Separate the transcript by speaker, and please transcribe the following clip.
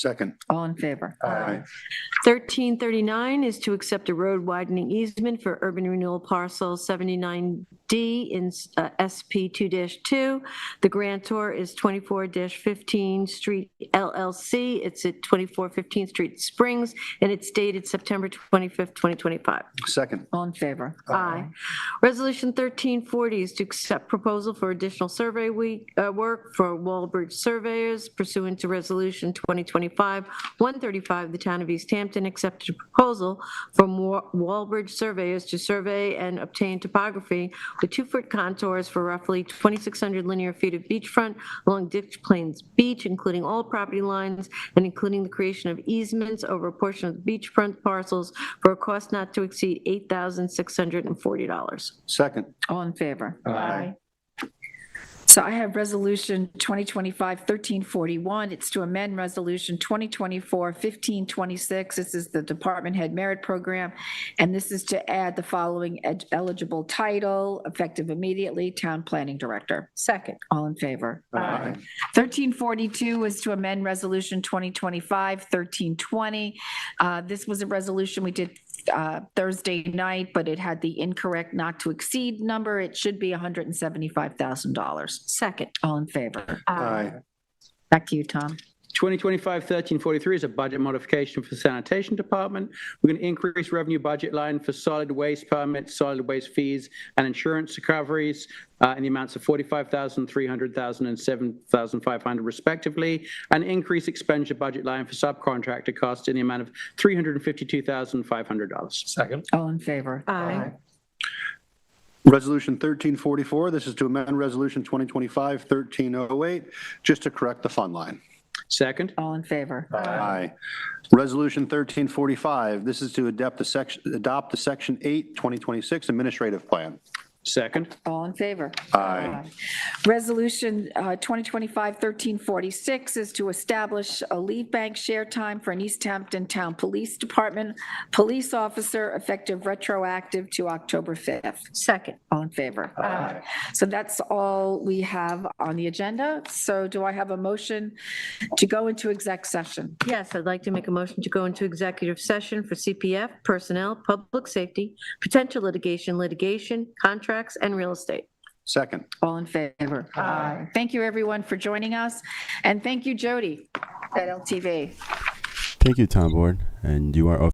Speaker 1: Second.
Speaker 2: All in favor?
Speaker 1: Aye.
Speaker 3: 1339 is to accept a road widening easement for urban renewal parcel 79D in uh, SP 2-2. The grantor is 24-15 Street LLC. It's at 2415 Street Springs, and it's dated September 25th, 2025.
Speaker 1: Second.
Speaker 2: All in favor?
Speaker 3: Aye. Resolution 1340 is to accept proposal for additional survey week, uh, work for Walbridge surveyors pursuant to Resolution 2025-135. The Town of East Hampton accepted a proposal from Wa- Walbridge surveyors to survey and obtain topography with two-foot contours for roughly 2,600 linear feet of beachfront along Ditch Plains Beach, including all property lines and including the creation of easements over a portion of the beachfront parcels for a cost not to exceed $8,640.
Speaker 1: Second.
Speaker 2: All in favor?
Speaker 1: Aye.
Speaker 2: So I have Resolution 2025-1341. It's to amend Resolution 2024-1526. This is the Department Head Merit Program, and this is to add the following ed- eligible title, effective immediately, Town Planning Director.
Speaker 4: Second.
Speaker 2: All in favor?
Speaker 1: Aye.
Speaker 2: 1342 is to amend Resolution 2025-1320. Uh, This was a resolution we did uh, Thursday night, but it had the incorrect not to exceed number. It should be $175,000.
Speaker 3: Second.
Speaker 2: All in favor?
Speaker 1: Aye.
Speaker 2: Back to you, Tom.
Speaker 5: 2025-1343 is a budget modification for the sanitation department. We're going to increase revenue budget line for solid waste permits, solid waste fees, and insurance recoveries uh, in the amounts of 45,000, 300,000, and 7,500 respectively, and increase expenditure budget line for subcontractor costs in the amount of $352,500.
Speaker 4: Second.
Speaker 2: All in favor?
Speaker 3: Aye.
Speaker 1: Resolution 1344, this is to amend Resolution 2025-1308, just to correct the fund line.
Speaker 5: Second.
Speaker 2: All in favor?
Speaker 1: Aye. Resolution 1345, this is to adopt the section, adopt the Section 8, 2026 Administrative Plan.
Speaker 5: Second.
Speaker 2: All in favor?
Speaker 1: Aye.
Speaker 2: Resolution uh, 2025-1346 is to establish a lead bank share time for an East Hampton Town Police Department police officer effective retroactive to October 5th.
Speaker 3: Second.
Speaker 2: All in favor? Aye. So that's all we have on the agenda. So do I have a motion to go into exec session?
Speaker 3: Yes, I'd like to make a motion to go into executive session for CPF, personnel, public safety, potential litigation, litigation, contracts, and real estate.
Speaker 1: Second.
Speaker 2: All in favor? Aye. Thank you, everyone, for joining us, and thank you, Jody, at LTV.
Speaker 6: Thank you, Tom Board, and you are off.